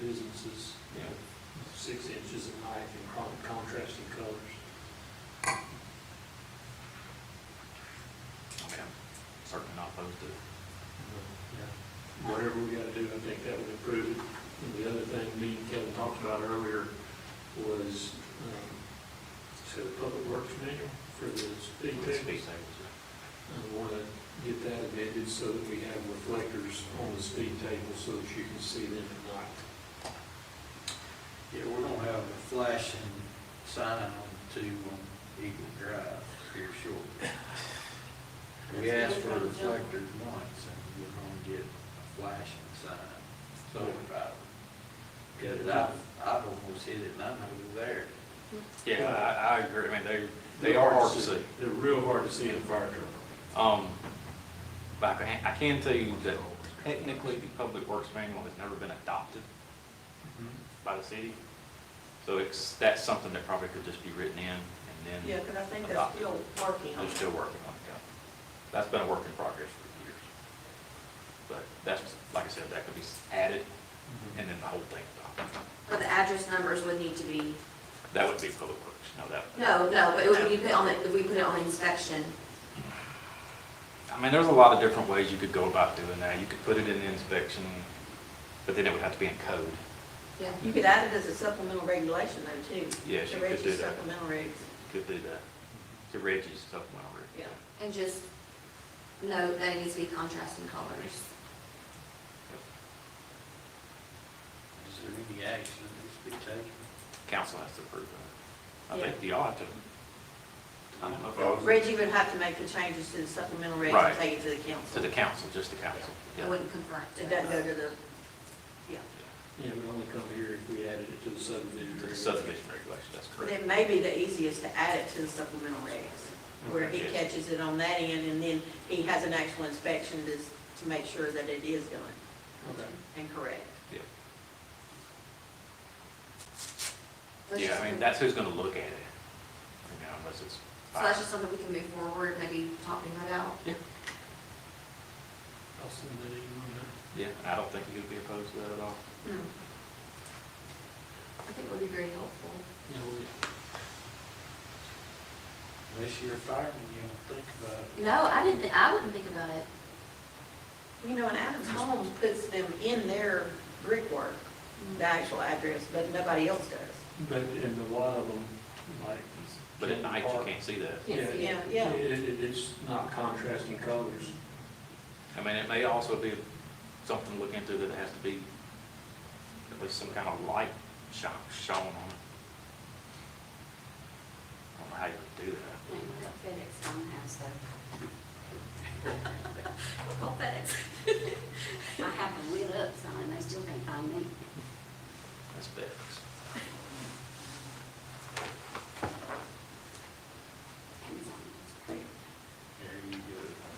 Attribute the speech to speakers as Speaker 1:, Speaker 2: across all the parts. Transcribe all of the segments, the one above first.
Speaker 1: businesses, you know, six inches in height and con- contrasting colors.
Speaker 2: I mean, I'm certainly not opposed to it.
Speaker 1: Yeah.
Speaker 2: Mm-hmm.
Speaker 1: Whatever we gotta do, I think that would improve it. And the other thing me and Kevin talked about earlier was, um, so the public works manual for the speed
Speaker 2: Let's be
Speaker 1: tickets. I
Speaker 2: safe.
Speaker 1: wanna get that amended so that we have reflectors on the speed table so that you can see them at night.
Speaker 3: Yeah, we're gonna have a flashing sign on two on Eagle Drive here shortly. We asked for reflectors once, and we're gonna get a flashing sign, certified. Because I've, I've almost hit it, and I know they're there.
Speaker 2: Yeah, I, I agree, I mean, they, they are hard to see.
Speaker 1: They're real hard to see in a fire truck.
Speaker 2: Um, but I can, I can tell you that technically the Public Works Manual has never been adopted Mm-hmm. by the city. So it's, that's something that probably could just be written in and
Speaker 4: Yeah,
Speaker 2: then
Speaker 4: because I think that's still working on
Speaker 2: they're
Speaker 4: it.
Speaker 2: still working on it. yeah. That's been a work in progress for years. But that's, like I said, that could be added and then the whole thing adopted.
Speaker 5: But the address numbers would need to be,
Speaker 2: That would be Public Works, no, that,
Speaker 5: no, no, but it would be put on, the- if we put it on inspection.
Speaker 2: I mean, there's a lot of different ways you could go about doing that. You could put it in the inspection, but then it would have to be in code.
Speaker 5: Yeah.
Speaker 4: You could add it as a supplemental regulation though, too.
Speaker 2: Yes,
Speaker 4: The
Speaker 2: you could
Speaker 4: Reggie's
Speaker 2: do that.
Speaker 4: Supplemental regs,
Speaker 2: Could do that. To Reggie's supplemental.
Speaker 4: yeah.
Speaker 5: And just note that it needs to be contrasting colors.
Speaker 3: Is there any action that needs to be taken?
Speaker 2: Council has to approve that. I
Speaker 4: Yeah.
Speaker 2: think y'all have to. I don't know if y'all-
Speaker 4: Reggie would have to make the changes to the supplemental regs
Speaker 2: Right.
Speaker 4: and take it to the
Speaker 2: To
Speaker 4: council.
Speaker 2: the council, just the council.
Speaker 5: It
Speaker 2: Yeah.
Speaker 5: wouldn't conflict.
Speaker 4: It doesn't go to the, yeah.
Speaker 1: Yeah, we only come here if we added it to the subdivision.
Speaker 2: To the
Speaker 1: regulation.
Speaker 2: subdivision regulation, that's
Speaker 4: But
Speaker 2: correct.
Speaker 4: it may be the easiest to add it to the supplemental regs, where he
Speaker 2: Okay.
Speaker 4: catches it on that end, and then he has an actual inspection to, to make sure that it is done
Speaker 1: Okay.
Speaker 4: and correct.
Speaker 2: Yeah.
Speaker 5: Let's
Speaker 2: Yeah,
Speaker 5: just
Speaker 2: I mean,
Speaker 5: move-
Speaker 2: that's who's gonna look at it. You know, unless it's.
Speaker 5: So that's just something we can move forward, maybe talking that out.
Speaker 2: Yeah,
Speaker 1: I'll send that email.
Speaker 2: yeah, and I don't think you'd be opposed to that at all.
Speaker 5: No. I think it would be very helpful.
Speaker 1: You know, we-
Speaker 3: Unless you're a fireman, you don't think about it.
Speaker 5: No, I didn't, thi- I wouldn't think about it.
Speaker 4: You know, and Adams Homes puts them in their brickwork, the actual address, but nobody else does.
Speaker 1: But in a lot of them, like.
Speaker 2: But at night, you can't see that.
Speaker 5: Can't see
Speaker 4: Yeah,
Speaker 5: it.
Speaker 4: yeah.
Speaker 1: It, it- it's not contrasting colors.
Speaker 2: I mean, it may also be something to look into that has to be at least some kind of light shone, shown on it. I don't know how you would do that.
Speaker 5: FedEx don't have Call FedEx.
Speaker 6: I have a lit up sign, they still can't find me.
Speaker 2: That's bad.
Speaker 6: Amazon.
Speaker 3: There you go.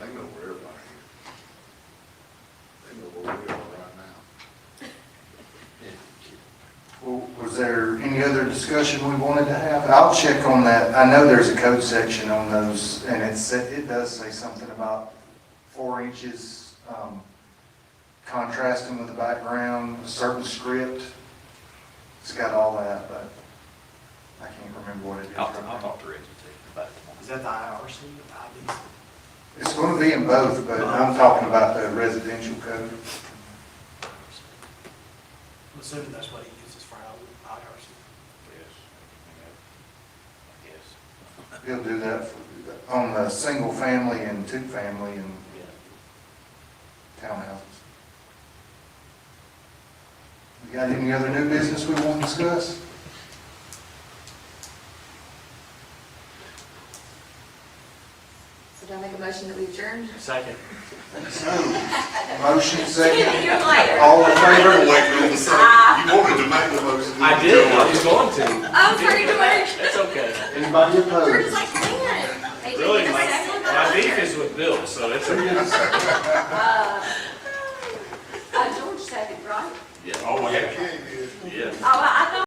Speaker 7: They know where everybody is. They know where we are right now.
Speaker 3: Yeah.
Speaker 8: Well, Was there any other discussion we wanted to have? I'll check on that. I know there's a code section on those, and it's, it does say something about four inches um, contrasting with the background, a certain script. It's got all that, but I can't remember what it is.
Speaker 2: I'll,
Speaker 8: right
Speaker 2: I'll
Speaker 8: now.
Speaker 2: talk to Reggie too about it tomorrow.
Speaker 9: Is that the IRC, the IB?
Speaker 8: It's going to be in both, but I'm talking about the residential code.
Speaker 9: I'm assuming that's what he uses for our IRC.
Speaker 2: Yes. I guess.
Speaker 8: He'll do that for- on the single family and two family and townhouses. We got any other new business we want to discuss?
Speaker 5: So do I make a motion that we adjourn?
Speaker 9: Second.
Speaker 8: So, motion second,
Speaker 5: You're like,
Speaker 8: all in favor?
Speaker 7: Wait, wait a second. you wanted to make the motion.
Speaker 9: I did, I was going to.
Speaker 5: I was ready to work.
Speaker 9: It's okay.
Speaker 8: Anybody
Speaker 5: We're
Speaker 8: opposed?
Speaker 5: just like, man. they didn't
Speaker 9: Really,
Speaker 5: get a
Speaker 9: my-
Speaker 5: second
Speaker 9: My
Speaker 5: vote.
Speaker 9: beef is with Bill, so it's okay.
Speaker 5: Uh,
Speaker 6: Uh, George second, right?
Speaker 7: Oh, yeah, I can't, yeah.
Speaker 5: Oh, I I thought